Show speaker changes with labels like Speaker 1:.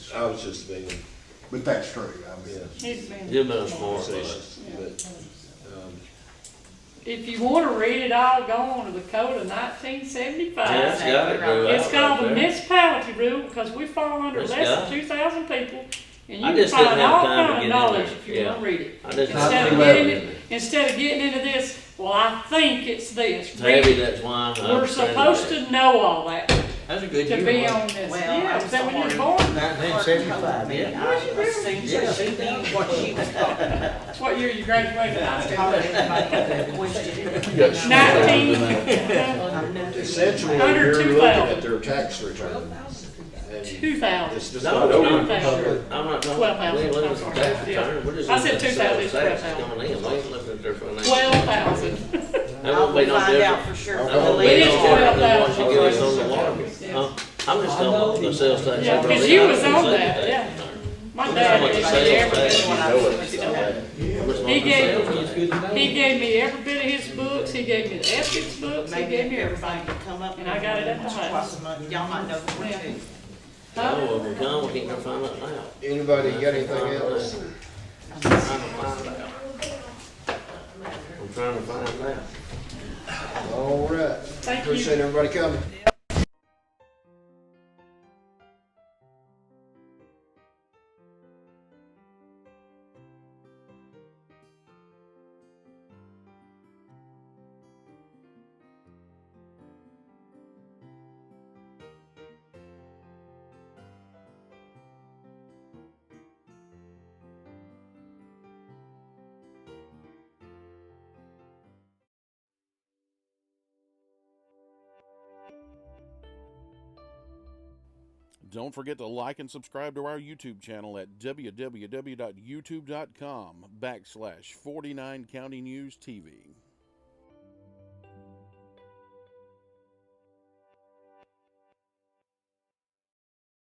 Speaker 1: I was just being
Speaker 2: But that's true, I mean.
Speaker 1: Yeah.
Speaker 3: He's been-
Speaker 4: He's been smart.
Speaker 1: facetious, but, um,
Speaker 3: If you wanna read it all, go on to the code of nineteen seventy-five.
Speaker 4: Yeah, it's got it grew out
Speaker 3: It's called
Speaker 4: right
Speaker 3: the
Speaker 4: there.
Speaker 3: municipality rule, because we fall under
Speaker 4: It's
Speaker 3: less
Speaker 4: got
Speaker 3: than two thousand people, and
Speaker 4: I
Speaker 3: you can
Speaker 4: just didn't
Speaker 3: find
Speaker 4: have
Speaker 3: all
Speaker 4: time
Speaker 3: kind
Speaker 4: to
Speaker 3: of
Speaker 4: get in
Speaker 3: knowledge
Speaker 4: there.
Speaker 3: if you wanna
Speaker 4: Yeah.
Speaker 3: read it.
Speaker 4: I just
Speaker 3: Instead
Speaker 4: not
Speaker 3: of
Speaker 4: too
Speaker 3: getting
Speaker 4: bad.
Speaker 3: Instead of getting into this, well, I think it's this,
Speaker 4: It's heavy,
Speaker 3: read it.
Speaker 4: that's why. I
Speaker 3: we're
Speaker 4: understand
Speaker 3: supposed
Speaker 4: that.
Speaker 3: to know all that, to
Speaker 5: That's a good
Speaker 3: be
Speaker 5: year.
Speaker 3: on this,
Speaker 6: Well,
Speaker 3: yeah,
Speaker 6: I'm
Speaker 3: is that when
Speaker 6: sorry.
Speaker 3: you're born,
Speaker 5: Nineteen seventy-five, yeah.
Speaker 6: I assume
Speaker 5: Yeah.
Speaker 6: that she knew what she was talking about.
Speaker 3: what year you graduated high school?
Speaker 6: Probably everybody had that question.
Speaker 3: Nineteen,
Speaker 6: I'm not-
Speaker 1: essentially,
Speaker 3: Under
Speaker 1: you're
Speaker 3: two
Speaker 1: looking
Speaker 3: thousand.
Speaker 1: at their tax return. And
Speaker 3: two thousand.
Speaker 1: it's just
Speaker 4: No,
Speaker 1: not
Speaker 4: no,
Speaker 1: over.
Speaker 4: I'm not talking, I'm not talking.
Speaker 3: Twelve thousand,
Speaker 4: we ain't looking
Speaker 3: I'm
Speaker 4: at
Speaker 3: sorry.
Speaker 4: that return. We're just
Speaker 3: I said
Speaker 4: looking at
Speaker 3: two thousand,
Speaker 4: the
Speaker 3: it's
Speaker 4: sales tax
Speaker 3: twelve
Speaker 4: coming in. We ain't looking at their financial.
Speaker 3: Twelve thousand.
Speaker 4: That
Speaker 6: I'll
Speaker 4: won't be no
Speaker 6: find out
Speaker 4: different.
Speaker 6: for
Speaker 1: It
Speaker 6: sure.
Speaker 4: That won't be
Speaker 3: It is
Speaker 4: no different than what
Speaker 3: 12,000.
Speaker 4: you give us on the water. Huh? I'm just talking about the sales tax.
Speaker 3: Yeah,
Speaker 4: over
Speaker 3: 'cause
Speaker 4: there.
Speaker 3: you
Speaker 4: I
Speaker 3: was
Speaker 4: don't
Speaker 3: on
Speaker 4: say
Speaker 3: that, yeah. My
Speaker 4: How
Speaker 3: dad
Speaker 4: much
Speaker 3: gave
Speaker 4: sales
Speaker 3: me every
Speaker 4: tax?
Speaker 3: bit
Speaker 1: You
Speaker 3: when I
Speaker 1: know
Speaker 3: was
Speaker 1: it, it's
Speaker 3: little.
Speaker 1: not bad.
Speaker 4: I'm just
Speaker 3: He
Speaker 4: looking at
Speaker 3: gave-
Speaker 4: sales tax.
Speaker 3: He gave me every bit of his books, he gave me the ethics books, he
Speaker 6: Maybe
Speaker 3: gave
Speaker 6: if
Speaker 3: me everything.
Speaker 6: everybody could come up.
Speaker 3: And I got it at the
Speaker 6: once or
Speaker 3: house.
Speaker 6: twice a month, Y'all might know the
Speaker 3: Yeah.
Speaker 6: too.
Speaker 3: Huh?
Speaker 4: No, we come, we can't go find out now.
Speaker 1: Anybody got anything else?
Speaker 4: I'm trying to find out. I'm trying to find out.
Speaker 1: All right.
Speaker 3: Thank you.
Speaker 1: Appreciate everybody coming.
Speaker 7: Don't forget to like and subscribe to our YouTube channel at www.youtube.com backslash 49 County News TV.